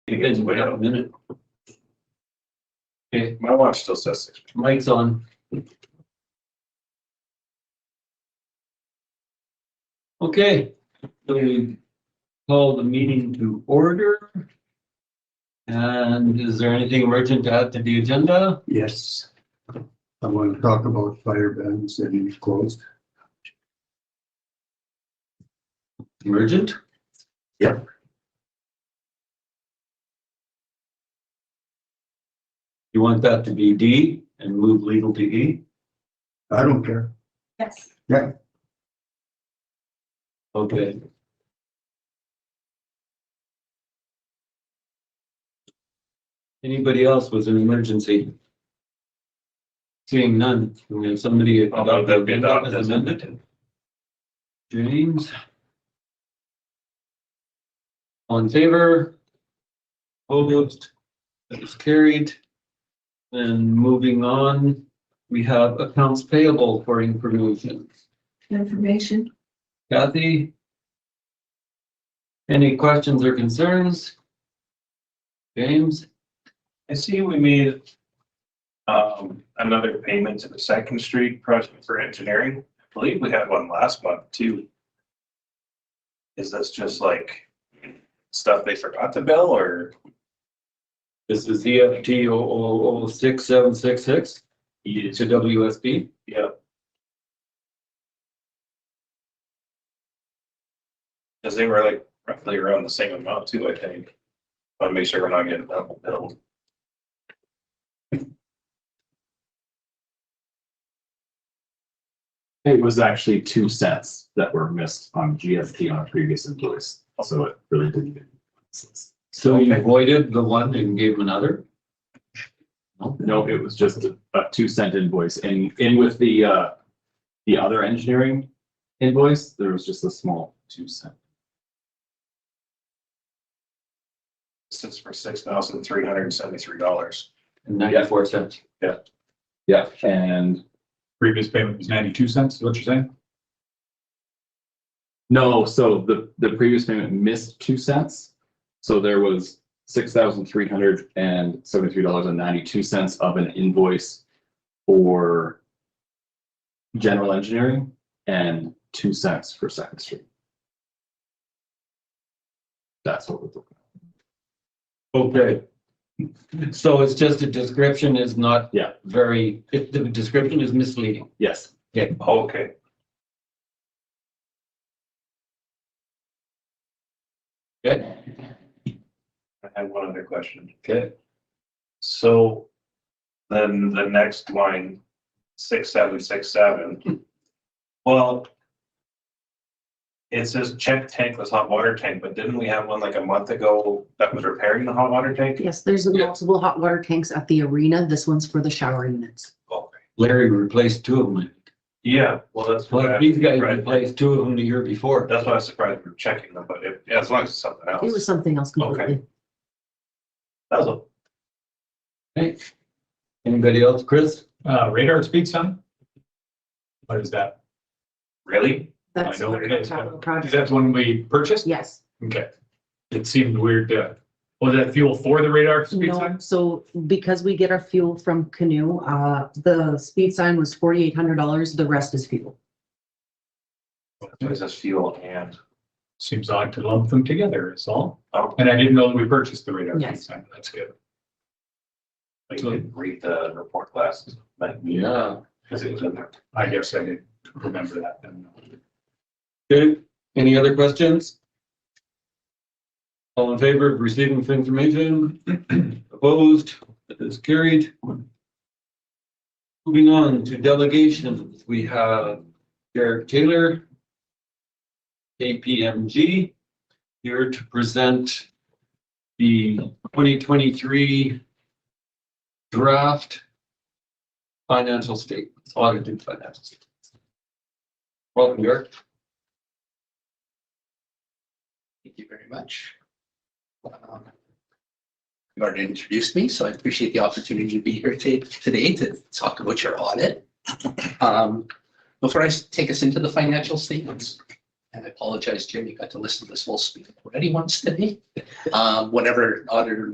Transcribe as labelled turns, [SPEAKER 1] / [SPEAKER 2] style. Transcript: [SPEAKER 1] It's been a minute. Okay,
[SPEAKER 2] My watch still says six.
[SPEAKER 1] mic's on. Okay, we call the meeting to order. And is there anything urgent to add to the agenda?
[SPEAKER 3] Yes. I want to talk about fire bans that you've closed.
[SPEAKER 1] Urgent?
[SPEAKER 3] Yep.
[SPEAKER 1] You want that to be D and move legal to E?
[SPEAKER 3] I don't care.
[SPEAKER 4] Yes.
[SPEAKER 1] Okay. Anybody else with an emergency? Seeing none, we have somebody.
[SPEAKER 2] I'll move that we adopt as
[SPEAKER 1] amended. James? All in favor? Opposed? That is carried. And moving on, we have accounts payable for information.
[SPEAKER 4] Information.
[SPEAKER 1] Kathy? Any questions or concerns? James?
[SPEAKER 2] I see we made um, another payment to the Second Street project for engineering. I believe we had one last month too. Is this just like stuff they forgot to bill or?
[SPEAKER 1] This is EFT 006766 to WSB.
[SPEAKER 2] Yeah. Cause they were like roughly around the same amount too, I think. Want to make sure we're not getting double billed.
[SPEAKER 5] It was actually two sets that were missed on GST on a previous invoice, so it really didn't. make sense.
[SPEAKER 1] So you
[SPEAKER 2] Okay.
[SPEAKER 1] voided the one and gave another?
[SPEAKER 5] No, it was just a a two cent invoice and in with the uh, the other engineering invoice, there was just a small two cent.
[SPEAKER 2] This is for six thousand three hundred and seventy-three dollars.
[SPEAKER 1] And 94 cents.
[SPEAKER 5] Yeah. And
[SPEAKER 6] Previous payment was ninety-two cents, is what you're saying?
[SPEAKER 5] no, so the the previous payment missed two cents. So there was six thousand three hundred and seventy-three dollars and ninety-two cents of an invoice for general engineering and two cents for Second Street. That's what we're looking at.
[SPEAKER 1] Okay. So it's just a description is not.
[SPEAKER 5] Yeah.
[SPEAKER 1] Very, it- the description is misleading.
[SPEAKER 5] Yes,
[SPEAKER 2] Okay.
[SPEAKER 1] Okay.
[SPEAKER 2] I have one other question.
[SPEAKER 1] Okay.
[SPEAKER 2] So then the next line, six, seven, six, seven. Well, it says check tankless hot water tank, but didn't we have one like a month ago that was repairing the hot water tank?
[SPEAKER 7] Yes, there's
[SPEAKER 1] Yeah.
[SPEAKER 7] multiple hot water tanks at the arena. This one's for the shower units.
[SPEAKER 2] Okay.
[SPEAKER 1] Larry replaced two of them.
[SPEAKER 2] Yeah, well, that's. what I-
[SPEAKER 1] Like these guys
[SPEAKER 2] right,
[SPEAKER 1] replaced two of them the year before.
[SPEAKER 2] That's why I was surprised we were checking them, but if, as long as it's something else.
[SPEAKER 7] It was something else
[SPEAKER 2] Okay.
[SPEAKER 7] completely.
[SPEAKER 2] That was a-
[SPEAKER 1] Okay. Anybody else? Chris?
[SPEAKER 6] Uh, radar speed sign? What is that?
[SPEAKER 2] Really?
[SPEAKER 7] That's
[SPEAKER 6] I know what it
[SPEAKER 7] on
[SPEAKER 6] is.
[SPEAKER 7] top of the
[SPEAKER 6] Is
[SPEAKER 7] project.
[SPEAKER 6] that the one we purchased?
[SPEAKER 7] Yes,
[SPEAKER 6] Okay. It seemed weird to, was that fuel for the radar speed
[SPEAKER 7] no,
[SPEAKER 6] sign?
[SPEAKER 7] so because we get our fuel from Canoe, uh, the speed sign was forty-eight hundred dollars, the rest is fuel.
[SPEAKER 2] It says fuel and.
[SPEAKER 6] Seems odd to lump them together, is all.
[SPEAKER 2] Oh.
[SPEAKER 6] And I didn't know that we purchased the radar speed
[SPEAKER 7] Yes.
[SPEAKER 6] sign. That's good.
[SPEAKER 2] I didn't read the report last night.
[SPEAKER 1] Yeah.
[SPEAKER 2] Cause it was in there.
[SPEAKER 6] I guess I didn't remember that then.
[SPEAKER 1] Okay, any other questions? All in favor of receiving this information? Opposed? That is carried. Moving on to delegations, we have Derek Taylor, KPMG, here to present the 2023 draft financial statements, audited financial statements. Welcome, Derek.
[SPEAKER 8] Thank you very much. Um, You already introduced me, so I appreciate the opportunity to be here ta- today to talk about your audit. Um, Before I s- take us into the financial statements, and I apologize, Jim, you got to listen to this whole speech already once today. Um, Whenever auditor